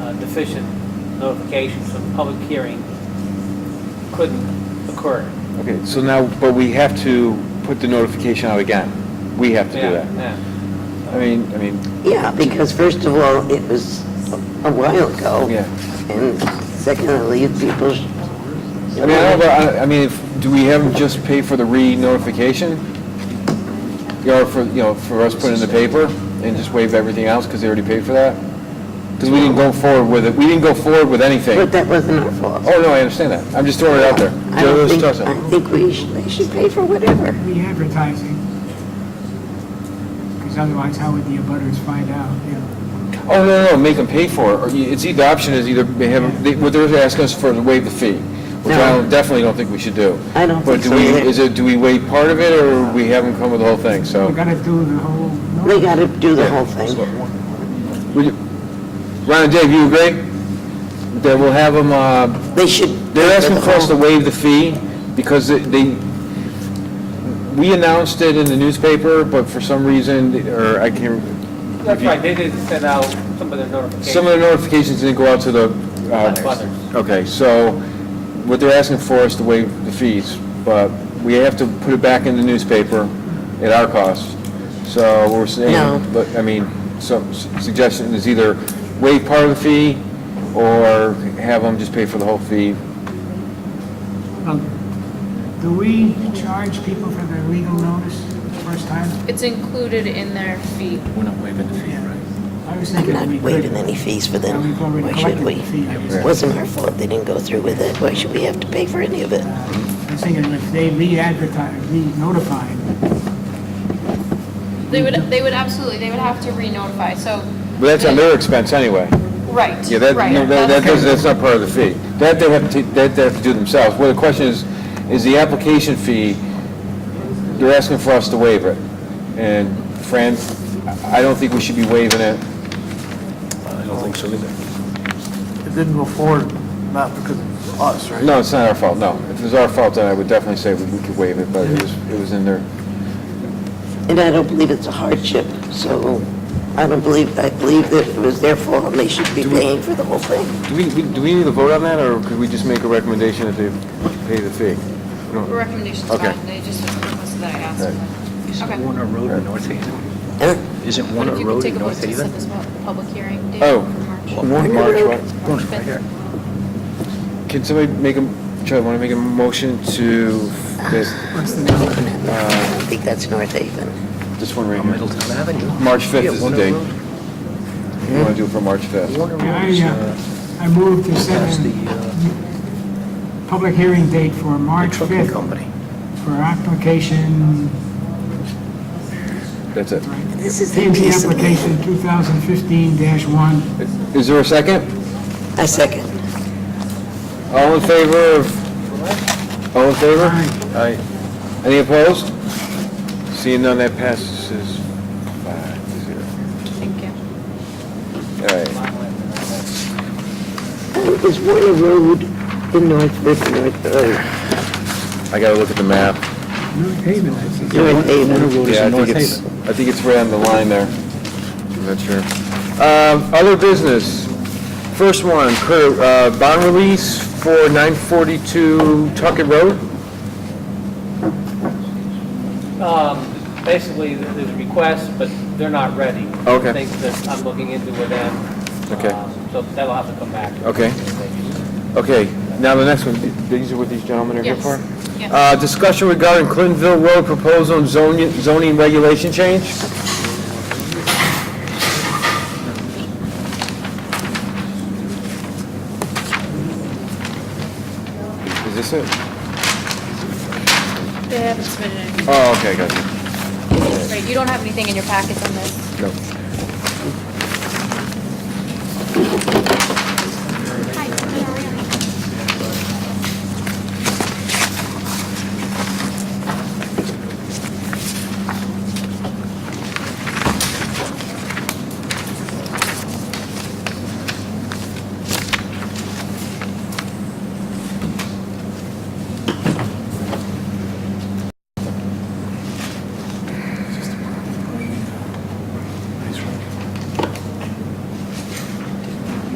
uh, deficient notification, so the public hearing couldn't occur. Okay, so now, but we have to put the notification out again. We have to do Yeah, that. yeah. I mean, I mean, Yeah, because first of all, it was a while ago. Yeah. And secondly, people. sh- I mean, I don't know, I- I mean, if, do we have them just pay for the re-notification? Or for, you know, for us putting in the paper and just waive everything else because they already paid for that? Because we didn't go forward with it, we didn't go forward with anything. But that wasn't our fault. Oh, no, I understand that. I'm just throwing it out there. I Joe don't think, Stossel. I think we should, they should pay for whatever. re-advertising, because otherwise how would the abutters find out, you know? Oh, no, no, make them pay for it, or you- it's either, option is either, they have, they- what they're asking us for is waive the fee, which I No. don't- definitely don't think we should do. I don't But think do so we, either. is it, do we waive part of it, or we have them come with the whole thing, We so? Oh. gotta do the whole, They no, gotta do the whole thing. Would you- Ron and Dave, you agree? That we'll have them, uh, They should. they're pay for asking the for us to whole- waive the fee, because they- they, we announced it in the newspaper, but for some reason, or I can't, That's right, they didn't send out some of their notifications. Some of the notifications didn't go out to the... uh, Butters. Okay, so what they're asking for is to waive the fees, but we have to put it back in the newspaper at our cost. So we're No. saying, but, I mean, some s- suggestion is either waive part of the fee or have them just pay for the whole fee. Um, do we charge people for their legal notice the first time? It's included in their fee. We're not waiving the fee, right? I was I'm thinking not we could. waiving any fees for Yeah, them. we've already Why should collected we? the fee. I was- It wasn't our fault they didn't go through with it. Why should we have to pay for any of it? I was thinking if they re-advertise, re-notify, They would, they would absolutely, they would have to re-notify, so. But that's on their expense anyway. Right. Yeah, that, right, no, that, that that's- doesn't, that's not part of the fee. That they have to, that they have to do themselves. Well, the question is, is the application fee, they're asking for us to waive it. And Fran, I I don't think we should be waiving it. I don't think so either. It didn't go forward, not because of us, right? No, it's not our fault, no. If it was our fault, then I would definitely say we we could waive it, but it was, it was in there. And I don't believe it's a hardship, so I don't believe, I believe that it was their fault and they should be paying for the whole thing. Do we, do we need to vote on that, or could we just make a recommendation that they pay the fee? Recommendation's Okay. fine, they just requested that I ask. Right. Okay. Isn't Warner Road in North Haven? Huh? Isn't But Warner if you could Road take in a vote to North set Haven? this mo- public hearing date Oh. for March. March, right? Warner's right here. Can somebody make a, Charlie, want to make a motion to, this, I don't think that's North Haven. this one right On here? Middletown Avenue. March 5th Yeah, is the Warner date. Road. You want to do it for March 5th? Warner Yeah, Road is, I, uh, uh, I moved to set past the, a uh, public hearing date for the March trucking 5th company. for application, That's it. This is the PMP piece of application land. 2015-1. Is there a second? I second. All in favor of, all in favor? Aye. Any opposed? Seeing none, that passes five to zero. Thank you. All right. Uh, Is Warner Road in North, with North, uh, I gotta look at the map. North Haven, I think. North Haven? Road is Yeah, I in North think it's, Haven. I think it's right on the line there. I'm not sure. Um, Other business. First one, cur- uh, bond release for 942 Tuckett Road? Um, Basically, th- there's a request, but they're not ready. Okay. Things that I'm looking into with them. Okay. Uh, So that'll have to come back. Okay. Okay, now the next one, these are what these gentlemen are here Yes. for? Yes. Uh, discussion regarding Clintonville Road proposal and zoning, zoning regulation change? Is this it? They haven't submitted anything. Oh, okay, got you. Right, you don't have anything in your packets on this. No.